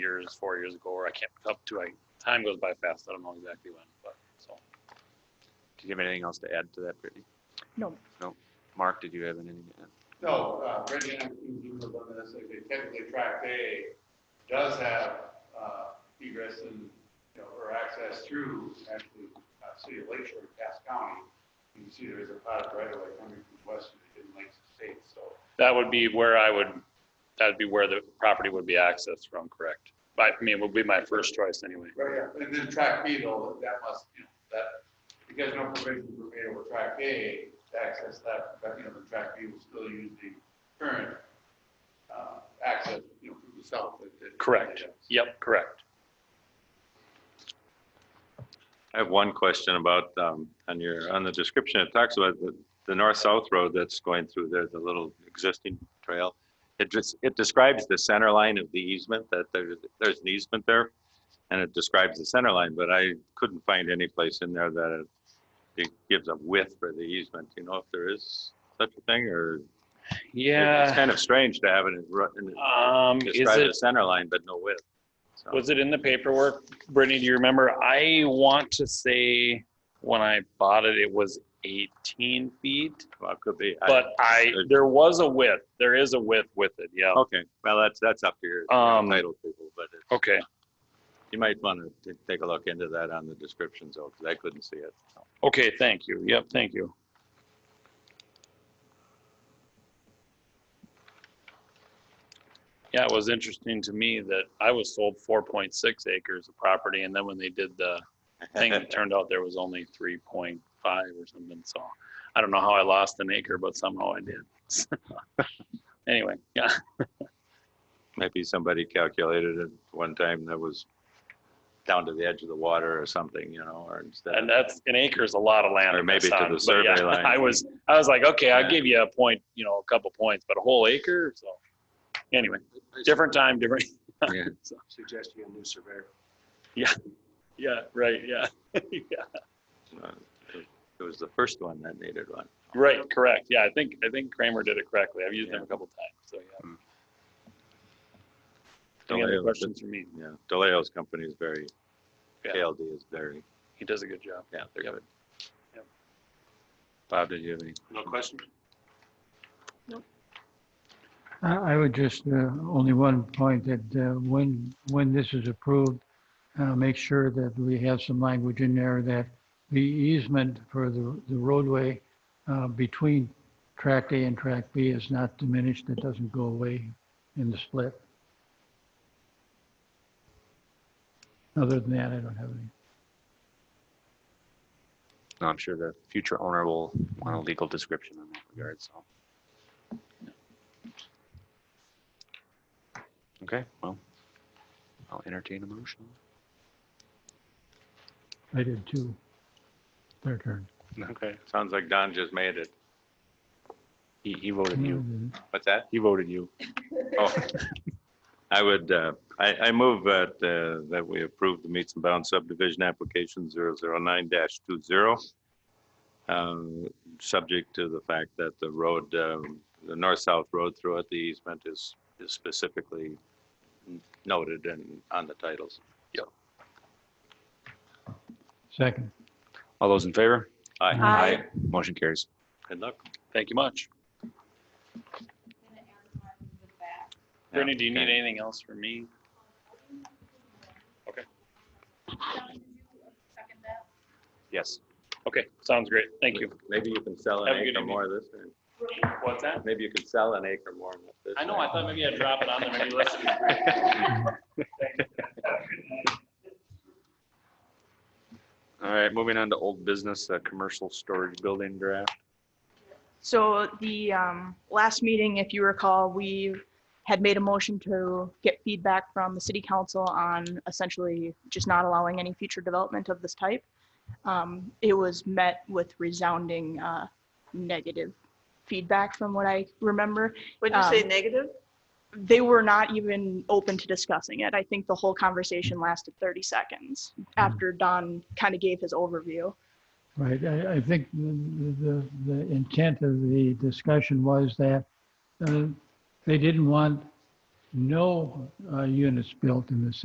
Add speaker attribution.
Speaker 1: years, four years ago, or I can't up to. I time goes by fast. I don't know exactly when, but so
Speaker 2: Did you have anything else to add to that, Brittany?
Speaker 3: No.
Speaker 2: No. Mark, did you have anything to add?
Speaker 4: No, uh, Brendan, I'm thinking of one that's like, they technically track A does have, uh, egress and, you know, or access through actually, uh, city of Lake Shore, Cass County. You can see there is a pot of right away coming from west of the Hidden Lakes State, so.
Speaker 1: that would be where I would. That'd be where the property would be accessed from, correct? But I mean, would be my first choice anyway.
Speaker 4: Right, yeah, and then track B though, that must, you know, that, because no provision were made over track A to access that, that, you know, the track B will still use the current, uh, access, you know, from the south. that- that-
Speaker 1: Correct. Yep, correct.
Speaker 5: I have one question about, um, on your, on the description, it talks about the, the north-south road that's going through there, the little existing trail. It just, it describes the center line of the easement, that there's, there's an easement there, and it describes the center line, but I couldn't find any place in there that it gives a width for the easement, you know, if there is such a thing, or it's
Speaker 1: Yeah.
Speaker 5: kind of strange to have it in, ru- in-
Speaker 1: Um, is
Speaker 5: describe
Speaker 1: it
Speaker 5: the center line, but no width. So-
Speaker 1: Was it in the paperwork, Brittany? Do you remember? I want to say when I bought it, it was 18 feet,
Speaker 5: Well, it could be.
Speaker 1: but I
Speaker 5: it-
Speaker 1: there was a width. There is a width with it. Yeah.
Speaker 5: Okay, well, that's, that's up to your
Speaker 1: Um,
Speaker 5: title people, but it-
Speaker 1: Okay.
Speaker 5: you might want to take a look into that on the descriptions though, because I couldn't see it. so.
Speaker 1: Okay. Thank you. Yep. Thank you. Yeah, it was interesting to me that I was sold 4.6 acres of property, and then when they did the thing, it turned out there was only 3.5 or something. So I don't know how I lost an acre, but somehow I did. anyway, yeah.
Speaker 5: Maybe somebody calculated it one time that was down to the edge of the water or something, you know, or instead.
Speaker 1: And
Speaker 5: of-
Speaker 1: that's an acre is a lot of land.
Speaker 5: Or
Speaker 1: in
Speaker 5: maybe to
Speaker 1: Wisconsin,
Speaker 5: the
Speaker 1: but yeah,
Speaker 5: survey line.
Speaker 1: I was, I was like, okay, I'll
Speaker 5: Yeah.
Speaker 1: give you a point, you know, a couple points, but a whole acre. So anyway, different time, different.
Speaker 5: Yeah.
Speaker 4: Suggesting a new surveyor.
Speaker 1: Yeah, right. Yeah. yeah.
Speaker 5: Uh, It it was the first one that needed one.
Speaker 1: Right. Correct. Yeah. I think, I think Kramer did it correctly. I've used him
Speaker 5: Yeah.
Speaker 1: a couple times. So yeah. Any other
Speaker 5: Deleo-
Speaker 1: questions for me?
Speaker 5: Yeah, DeLeo's company is very,
Speaker 1: Yeah.
Speaker 5: KLD is very,
Speaker 1: He does a good job.
Speaker 5: yeah, they're
Speaker 1: Yep.
Speaker 5: good.
Speaker 1: Yep.
Speaker 5: Bob, did you have any?
Speaker 4: No question?
Speaker 6: I I would just, uh, only one point that uh, when, when this is approved, uh, make sure that we have some language in there that the easement for the the roadway uh, between track A and track B is not diminished, it doesn't go away in the split. Other than that, I don't have any.
Speaker 2: No, I'm sure the future owner will want a legal description in that regard, so. Okay, well, I'll entertain a motion.
Speaker 6: I did too. Their turn.
Speaker 2: Okay.
Speaker 5: Sounds like Don just made it.
Speaker 2: He, he voted
Speaker 6: Hmm.
Speaker 2: you.
Speaker 5: What's that?
Speaker 2: He voted you.
Speaker 5: Oh, I would, uh, I, I move that, uh, that we approve the meets and bounds subdivision application 009-20. um, Subject to the fact that the road, um, the north-south road throughout the easement is, is specifically noted and on the titles.
Speaker 6: Second.
Speaker 2: All those in favor?
Speaker 5: Aye.
Speaker 3: Aye.
Speaker 2: Motion carries.
Speaker 5: Good luck.
Speaker 1: Thank you much. Brittany, do you need
Speaker 5: Okay.
Speaker 1: anything else from me?
Speaker 2: Yes.
Speaker 1: Okay. Sounds great. Thank you.
Speaker 5: Maybe you can sell an
Speaker 1: Have a good
Speaker 5: acre
Speaker 1: evening.
Speaker 5: more this time.
Speaker 1: What's that?
Speaker 5: Maybe you could sell an acre more this
Speaker 1: I know,
Speaker 5: time.
Speaker 1: I thought maybe I'd drop it on there, maybe listen.
Speaker 2: All right, moving on to old business, uh, commercial storage building draft.
Speaker 3: So the um, last meeting, if you recall, we had made a motion to get feedback from the city council on essentially just not allowing any future development of this type. Um, It was met with resounding uh, negative feedback from what I remember.
Speaker 7: Would you say
Speaker 3: Um,
Speaker 7: negative?
Speaker 3: They were not even open to discussing it. I think the whole conversation lasted 30 seconds after Don kind of gave his overview.
Speaker 6: Right, I, I think the, the- the intent of the discussion was that uh, they didn't want no uh, units built in the city.